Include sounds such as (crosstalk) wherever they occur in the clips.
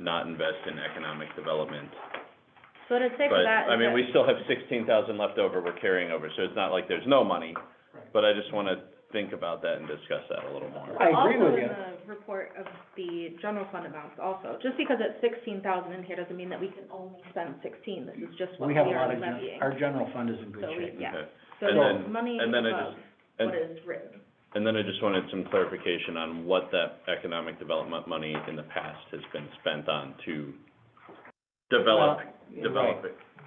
not invest in economic development. So what I'd say for But, that is I mean, that- we still have sixteen thousand left over we're carrying over, so it's not like there's no money. Right. But I just wanna think about that and discuss that a little more. I agree with you. Also in the report of the general fund amounts also, just because it's sixteen thousand in here doesn't mean that we can only spend sixteen, this is just what We we have a are lot of, gen- levying. our general fund is in good So we- shape. Yeah. Okay. So and there's then- money and then I above and- what is written. And then I just wanted some clarification on what that economic development money in the past has been spent on to develop, Well, develop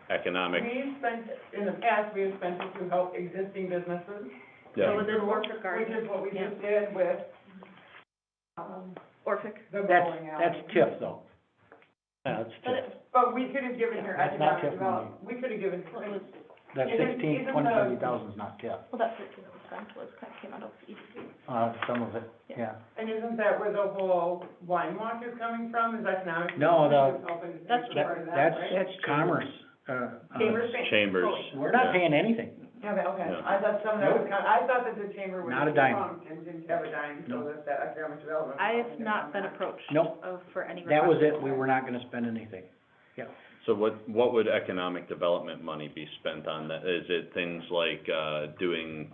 economic, We've spent, in the past, we have spent it to help existing businesses. So yeah, with this Orphic Which garden, is what we yeah. just did with, um, Orphic, the That's, bowling that's alley. TIF though. Yeah, that's but TIF, it- But we could have given your That's not economic TIF money. development, we could have given, what was, that isn't- sixteen, isn't twenty, the- thirty thousand is not TIF, well, that fifteen that was spent was, kind of came out of E EDC. uh, some of it, Yeah. yeah. and isn't that where the whole wine walk is coming from, is economic? No, development the- is helping to That's take That, part of that, that's, right? that's commerce, uh, uh, Chamber's paying- chambers. we're not yeah. paying anything. Yeah, but, okay, No. I thought some of that was, kind- I thought that the chamber was Not a dime. defunct and didn't have a dime, so No. that that economic development. I have not been approached Nope. of, for any request. That was it, we were not gonna spend anything. So what, what would economic development money be spent on? That, is it things like, uh, doing,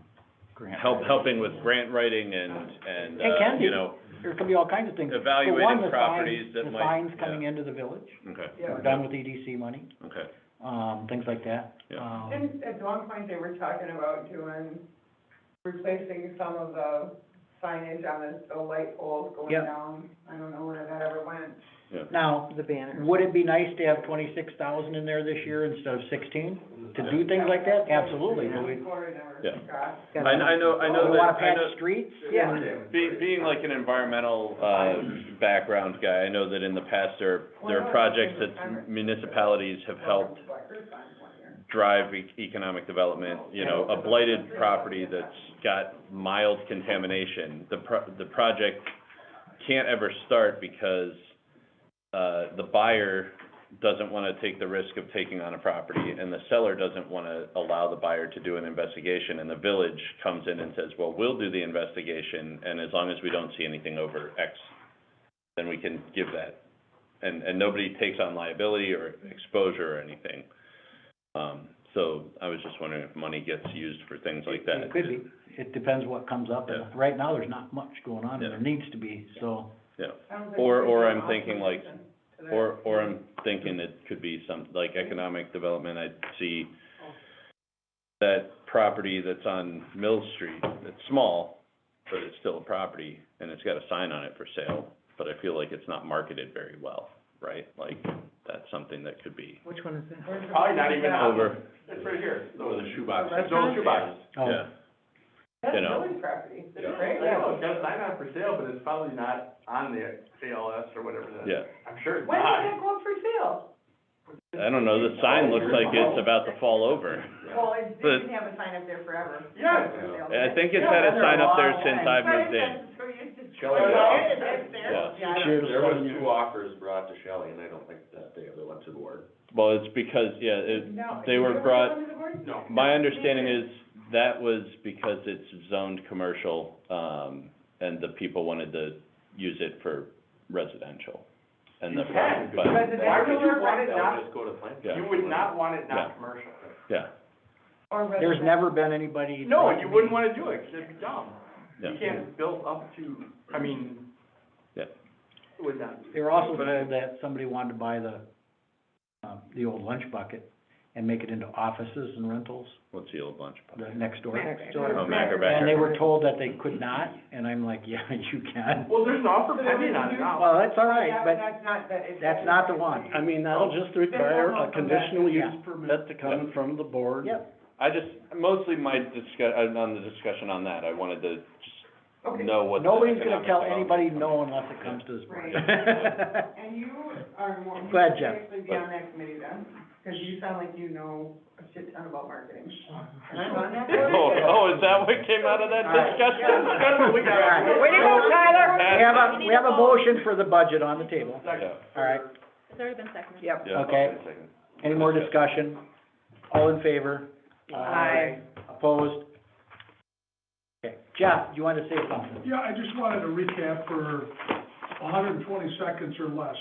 Grant help, writing. helping with grant writing and, and, It can uh, be. you know, There could be all kinds of things. For one, evaluating the signs- properties that might- The signs coming into the village, okay, Yeah. we're done with EDC money, okay. um, things like that. Yeah. Um, Didn't, at one point, they were talking about doing, replacing some of the signage on the, the light poles going Yep. down. I don't know where that ever went. Now, The banner. would it be nice to have twenty-six thousand in there this year instead of sixteen? To do things like that? Absolutely, but we, Corey never Yeah. got- I, I know, I know we that, wanna I patch know. streets? Yeah. Being, being like an environmental, uh, background guy, I know that in the past, there, there are projects that municipalities have helped drive e- economic development, you know, a blighted property that's got mild contamination, the pro- the project can't ever start because, uh, the buyer doesn't wanna take the risk of taking on a property, and the seller doesn't wanna allow the buyer to do an investigation, and the village comes in and says, well, we'll do the investigation, and as long as we don't see anything over X, then we can give that. And, and nobody takes on liability or exposure or anything. Um, so I was just wondering if money gets used for things like that. It could be. It depends what comes up. and Yeah. Right now, there's not much going on, and Yeah. there needs to be, so. I don't think Or- or there's an I'm thinking like- option to that. Or, or I'm thinking it could be some, like economic development, I see that property that's on Mill Street, it's small, but it's still a property, and it's got a sign on it for sale, but I feel like it's not marketed very well, right? Like, that's something that could be Which one is that? Where's the- Probably not even Yeah. out. over, It's right here. Oh, Those are shoeboxes. Those are shoeboxes. oh, yeah, That's you know. village property, I it's great. know, it's got a sign on it for sale, but it's probably not on the ALS or whatever that is. yeah. I'm sure it's When did not. that go up for sale? I don't know, the sign looks like it's about to fall over. Well, it But- didn't have a sign up there forever. Yeah. It was for sale. I think it's had a sign up there since I But moved in. it's- it's just- Shall we go? It is, it's there. Yeah. I don't- Sure. There was two offers brought to Shelley, and I don't think that they ever went to the board. Well, it's because, yeah, it, No, they you were don't brought- go to the board? No. My understanding is that was because it's zoned commercial, um, and the people wanted to use it for residential. And the, You can, but, Residential Why would you or want it That would not, just go to plan. Yeah. you would not want it Yeah. not commercial. yeah, Or There's residential. never been anybody. No, and you wouldn't wanna do it, it it'd be dumb. You yeah. can't build up to, I mean. Yeah. It would not. be. They were also told that somebody wanted to buy the, uh, the old lunch bucket and make it into offices and rentals, What's the old lunch? the next door. Next Oh, door. And they Mackerbacker. were told that they could not, and I'm like, yeah, (laughs) you can. Well, there's an offer So there pending on was it now. Well, that's all right, That- but That's not, that is. that's not the one. I mean, that'll just require a conditional use permit to come in from the board. Yep. I just, mostly my discuss, on the discussion on that, I wanted to just Okay. know what the Nobody's gonna economic tell development- anybody no unless it comes to this board. And you are more, you Go ahead, should Jeff. actually be on that committee then, because you sound like you know a shit ton about marketing. And I'm on (laughs) that board. Oh, (laughs) oh, is that what came out of that All right. discussion? That's what we got. All Way to go, Tyler. (laughs) We have We a, need we have a a vote. motion for the budget on the table. Yeah, All right, It's already been seconded. Yep. yeah. Okay. any more discussion? All in favor? Aye. Opposed? Okay, Jeff, you wanted to say something? Yeah, I just wanted to recap for hundred and twenty seconds or less.